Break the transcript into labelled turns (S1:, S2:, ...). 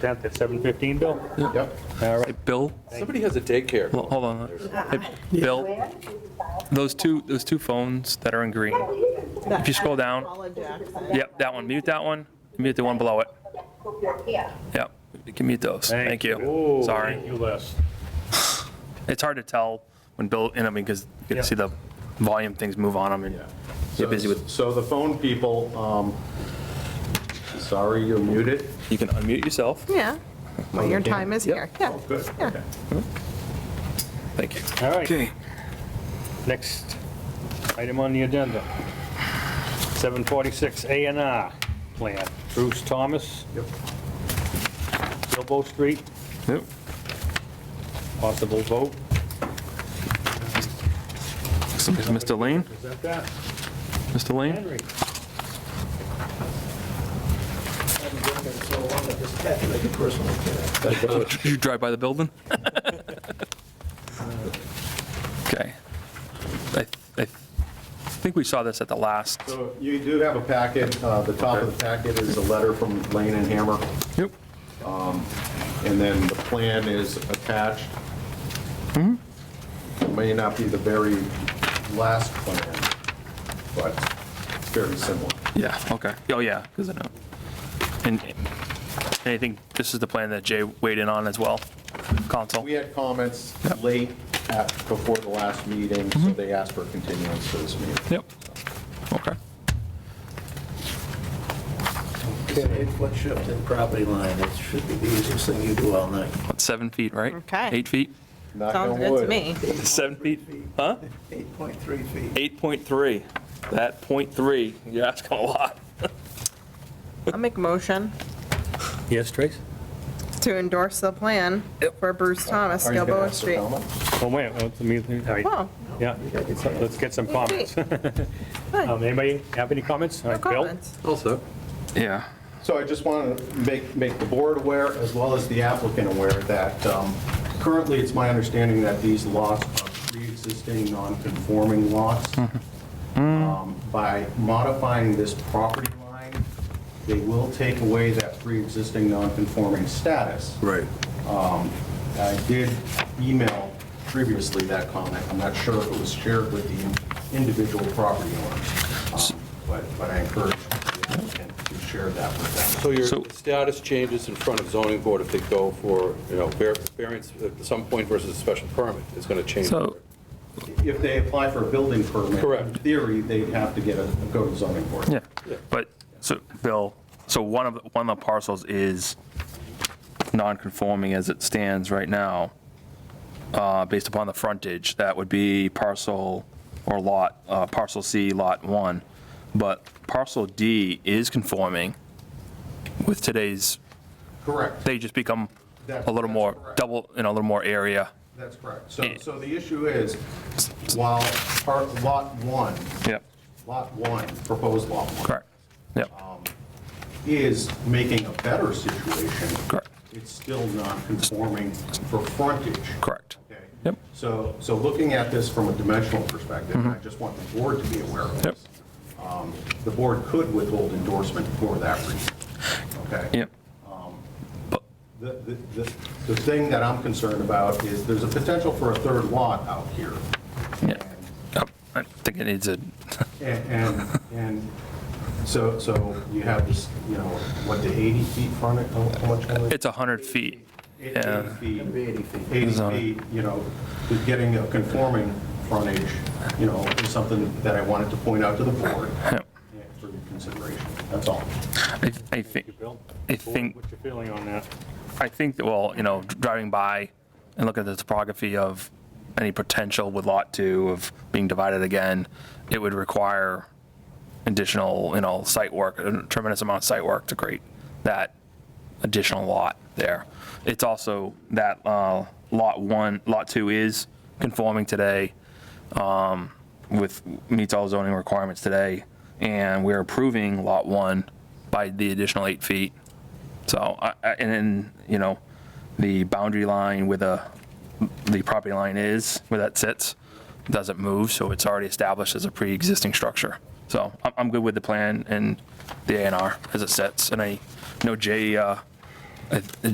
S1: 10th at 7:15, Bill?
S2: Yep.
S1: All right.
S3: Bill,
S4: Somebody has a daycare.
S3: well, hold on. Hey, Bill, those two, those two phones that are in green. If you scroll down,
S5: Paula Jackson.
S3: yep, that one, mute that one, mute the one below it. Yep, you can mute those. Thank you.
S1: Ooh,
S3: Sorry.
S1: Thank you, Les.
S3: It's hard to tell when Bill, and I mean, because
S1: Yeah.
S3: you can see the volume things move on them and
S2: So-
S3: get busy with,
S2: So the phone people, um, sorry, you're muted.
S3: you can unmute yourself.
S5: Yeah, well, your time is here, yeah.
S2: Oh, Good,
S5: Yeah.
S2: okay.
S3: Thank you.
S1: All right, next item on the agenda. 746 A and R plan. Bruce Thomas,
S2: Yep.
S1: Bilbo Street,
S3: Yep.
S1: possible vote.
S3: Is Mr. Lane,
S1: Is that that?
S3: Mr. Lane?
S1: Henry?
S3: Did you drive by the building? Okay. I, I think we saw this at the last.
S2: So you do have a packet, uh, the top of the packet is a letter from Lane and Hammer,
S3: Yep.
S2: and then the plan is attached.
S3: Mm-hmm.
S2: It May not be the very last plan, but it's very similar.
S3: Yeah, okay. Oh, yeah, because I know. And and I think this is the plan that Jay weighed in on as well, console.
S2: We had comments late at, before the last meeting, so they asked for a continuance for this meeting.
S3: Mm-hmm. Yep. Okay.
S6: It's an eight-foot shift in property line. It should be the easiest thing you do all night.
S3: That's seven feet, right?
S5: Okay.
S3: Eight feet?
S2: Knock
S5: Sounds
S2: on
S5: good to
S2: wood.
S5: me.
S3: Seven feet, huh?
S6: 8.3 feet.
S3: 8.3. That .3, you're asking a lot.
S5: I'll make a motion
S1: Yes, Trace?
S5: to endorse the plan for Bruce Thomas,
S2: Are you gonna
S5: Gilboa
S2: ask for
S5: Street.
S2: comment?
S1: Oh, wait, oh, it's me, all right.
S5: Well,
S1: yeah, let's get some comments.
S5: hi,
S1: Um, Anybody have any comments? All
S5: no
S1: right, Bill?
S5: comments.
S3: Yeah.
S2: So I just want to make, make the board aware, as well as the applicant aware, that um, currently, it's my understanding that these lots are pre-existing non-conforming lots. Um, By modifying this property line, they will take away that pre-existing non-conforming status.
S6: Right.
S2: I did email previously that comment. I'm not sure if it was shared with the individual property owners, um, but but I encourage the applicant to share that with them.
S4: So your
S3: So-
S4: status changes in front of zoning board if they go for, you know, var- variance at some point versus a special permit. It's going to change.
S3: So,
S2: If they apply for a building permit.
S4: Correct.
S2: In theory, they'd have to get a, go to zoning board.
S3: yeah, but, so, Bill, so one of, one of the parcels is non-conforming as it stands right now, uh, based upon the frontage, that would be parcel or lot, uh, parcel C, lot one. But parcel D is conforming with today's,
S2: Correct.
S3: they just become
S2: That-
S3: a little
S2: that's
S3: more,
S2: correct.
S3: double, in a little more area.
S2: That's correct. So, so the issue is, while part, lot one,
S3: Yep,
S2: lot one, proposed lot one.
S3: correct, yep,
S2: Um, Is making a better situation.
S3: Correct.
S2: It's still non-conforming for frontage.
S3: correct.
S2: Okay?
S3: Yep.
S2: So, so looking at this from a dimensional perspective, and I just want the board to be aware of
S3: Yep.
S2: this. um, The board could withhold endorsement for that reason. Okay?
S3: Yep,
S2: The, the, the- the thing that I'm concerned about is there's a potential for a third lot out here.
S3: yeah. Oh, I think it needs a,
S2: And, and, and so, so you have this, you know, what, the 80 feet frontage, how how much? frontage?
S3: it's 100 feet.
S2: Eight-
S3: yeah.
S2: 80 feet,
S6: 80 feet.
S2: 80
S3: Zone.
S2: feet, you know, with getting a conforming frontage, you know, is something that I wanted to point out to the board
S3: Yep.
S2: for your consideration, that's all.
S3: I, I think,
S1: Bill?
S3: I think,
S1: What's your feeling on that?
S3: I think that, well, you know, driving by and looking at the topography of any potential with Lot 2 of being divided again, it would require additional, you know, site work, a tremendous amount of site work to create that additional lot there. It's also that uh, Lot 1, Lot 2 is conforming today um, with, meets all zoning requirements today, and we're approving Lot 1 by the additional eight feet. So, I- I- and then, you know, the boundary line where the, the property line is, where that sits, doesn't move, so it's already established as a pre-existing structure. So I'm, I'm good with the plan and the A and R as it sits, and I know Jay, uh, I-